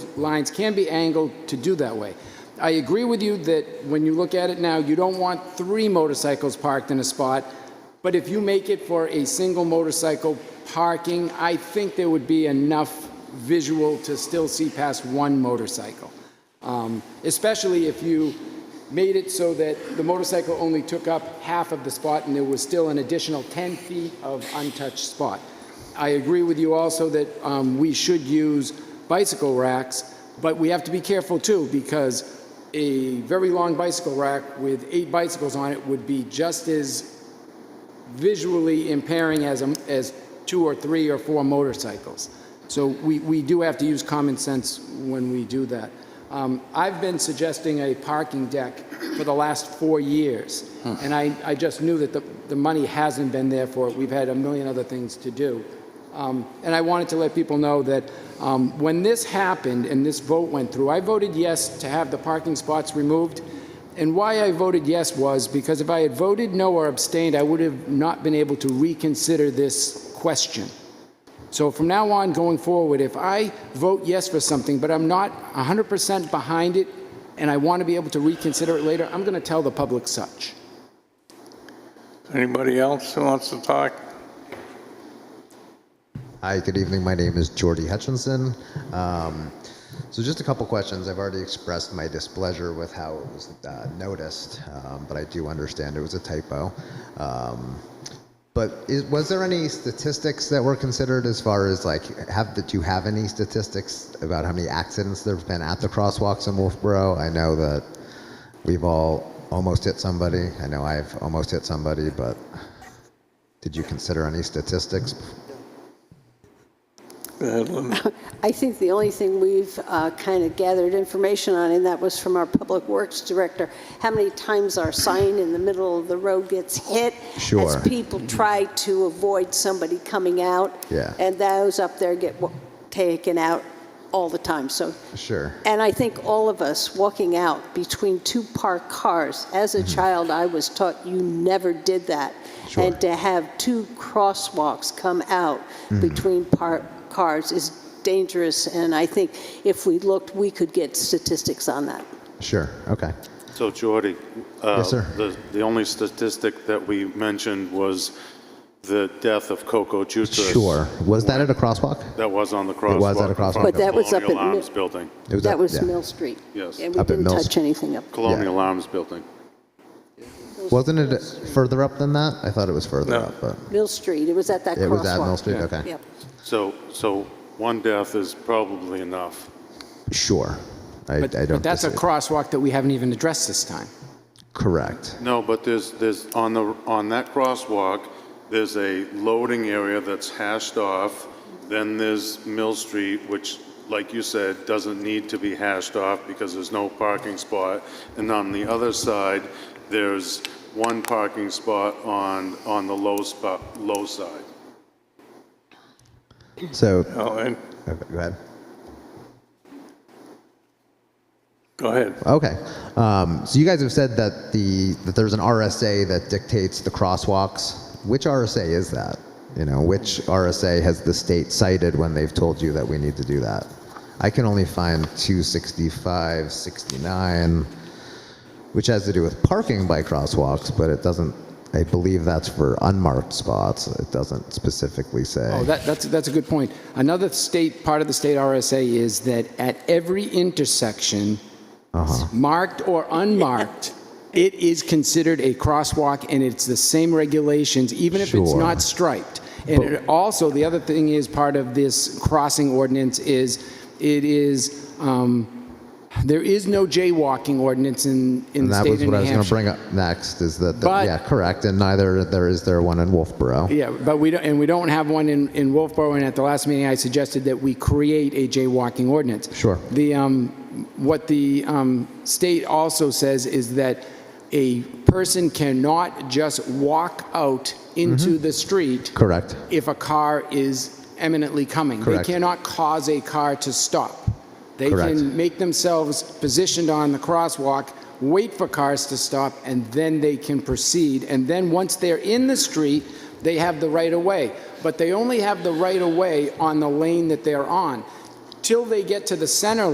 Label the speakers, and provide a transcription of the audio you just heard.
Speaker 1: lines can be angled to do that way. I agree with you that when you look at it now, you don't want three motorcycles parked in a spot, but if you make it for a single motorcycle parking, I think there would be enough visual to still see past one motorcycle. Um, Especially if you made it so that the motorcycle only took up half of the spot and there was still an additional 10 feet of untouched spot. I agree with you also that um, we should use bicycle racks, but we have to be careful too because a very long bicycle rack with eight bicycles on it would be just as visually impairing as, a- as two or three or four motorcycles. So we, we do have to use common sense when we do that. Um, I've been suggesting a parking deck for the last four years, and I, I just knew that the, the money hasn't been there for it. We've had a million other things to do. Um, And I wanted to let people know that um, when this happened and this vote went through, I voted yes to have the parking spots removed. And why I voted yes was because if I had voted no or abstained, I would have not been able to reconsider this question. So from now on, going forward, if I vote yes for something, but I'm not 100% behind it, and I want to be able to reconsider it later, I'm going to tell the public such.
Speaker 2: Anybody else who wants to talk?
Speaker 3: Hi, good evening. My name is Jordy Hutchinson. Um, so, just a couple questions. I've already expressed my displeasure with how it was uh, noticed, um, but I do understand it was a typo. Um, but is, was there any statistics that were considered as far as like, have did you have any statistics about how many accidents there have been at the crosswalks in Wolfboro? I know that we've all almost hit somebody. I know I've almost hit somebody, but did you consider any statistics
Speaker 2: Go ahead, Linda.
Speaker 4: I think the only thing we've kind of gathered information on, and that was from our Public Works Director, how many times our sign in the middle of the road gets hit.
Speaker 3: Sure.
Speaker 4: As people try to avoid somebody coming out.
Speaker 3: Yeah.
Speaker 4: And those up there get wa- taken out all the time, so.
Speaker 3: Sure.
Speaker 4: And I think all of us walking out between two parked cars, as a child, I was taught you never did that.
Speaker 3: Mm-hmm. Sure.
Speaker 4: And to have two crosswalks come out
Speaker 3: Mm-hmm.
Speaker 4: between parked cars is dangerous, and I think if we looked, we could get statistics on that.
Speaker 3: Sure. Okay.
Speaker 5: So Jordy? uh,
Speaker 3: Yes, sir.
Speaker 5: The, the only statistic that we mentioned was the death of Coco Jutras.
Speaker 3: Sure. Was that at a crosswalk?
Speaker 5: That was on the crosswalk.
Speaker 3: It was at a crosswalk.
Speaker 5: in front of
Speaker 3: But
Speaker 4: that was up
Speaker 5: Colonial
Speaker 4: at Mi-
Speaker 5: Arms Building.
Speaker 3: It was
Speaker 4: That
Speaker 3: up-
Speaker 4: was
Speaker 3: yeah.
Speaker 4: Mill Street.
Speaker 5: Yes.
Speaker 4: And we
Speaker 3: Up at
Speaker 4: didn't
Speaker 3: Mill
Speaker 4: touch
Speaker 3: Street.
Speaker 4: anything up.
Speaker 5: Colonial Arms Building.
Speaker 3: Wasn't it further up than that? I thought it was further
Speaker 2: No.
Speaker 3: up, but
Speaker 4: Mill Street, it was at that crosswalk.
Speaker 3: it was at Mill Street. Okay.
Speaker 4: Yep.
Speaker 5: So, so one death is probably enough.
Speaker 3: Sure. I,
Speaker 1: But-
Speaker 3: I don't.
Speaker 1: But that's a
Speaker 3: disagree.
Speaker 1: crosswalk that we haven't even addressed this time.
Speaker 3: Correct.
Speaker 5: No, but there's, there's, on the, on that crosswalk, there's a loading area that's hashed off. Then there's Mill Street, which, like you said, doesn't need to be hashed off because there's no parking spot. And on the other side, there's one parking spot on, on the low spot, low side.
Speaker 3: So
Speaker 2: No, Oh, and-
Speaker 3: okay, go ahead.
Speaker 2: Go ahead.
Speaker 3: Okay. Um, so you guys have said that the that there's an RSA that dictates the crosswalks. Which RSA is that? You know, which RSA has the state cited when they've told you that we need to do that? I can only find 265, 69, which has to do with parking by crosswalks, but it doesn't. I believe that's for unmarked spots. It doesn't specifically say.
Speaker 1: Oh, that, that's, that's a good point. Another state, part of the state RSA is that at every intersection,
Speaker 3: Uh-huh.
Speaker 1: marked or unmarked, it is considered a crosswalk and it's the same regulations, even if it's
Speaker 3: Sure.
Speaker 1: not striped. And it also, the other thing is part of this crossing ordinance is it is, um, there is no jaywalking ordinance in, in
Speaker 3: and
Speaker 1: the
Speaker 3: that
Speaker 1: state
Speaker 3: was
Speaker 1: of New
Speaker 3: what I was going to
Speaker 1: Hampshire.
Speaker 3: bring up next. Is that, that-
Speaker 1: But-
Speaker 3: yeah, correct? And neither there is there one in Wolfboro.
Speaker 1: Yeah, but we don't, and we don't have one in, in Wolfboro, and at the last meeting, I suggested that we create a jaywalking ordinance.
Speaker 3: Sure.
Speaker 1: The, um, what the, um, state also says is that a person cannot just walk out into the street
Speaker 3: Correct.
Speaker 1: if a car is eminently coming.
Speaker 3: Correct.
Speaker 1: They cannot cause a car to stop. They
Speaker 3: Correct.
Speaker 1: can make themselves positioned on the crosswalk, wait for cars to stop, and then they can proceed. And then once they're in the street, they have the right of way. But they only have the right of way on the lane that they're on. Till they get to the center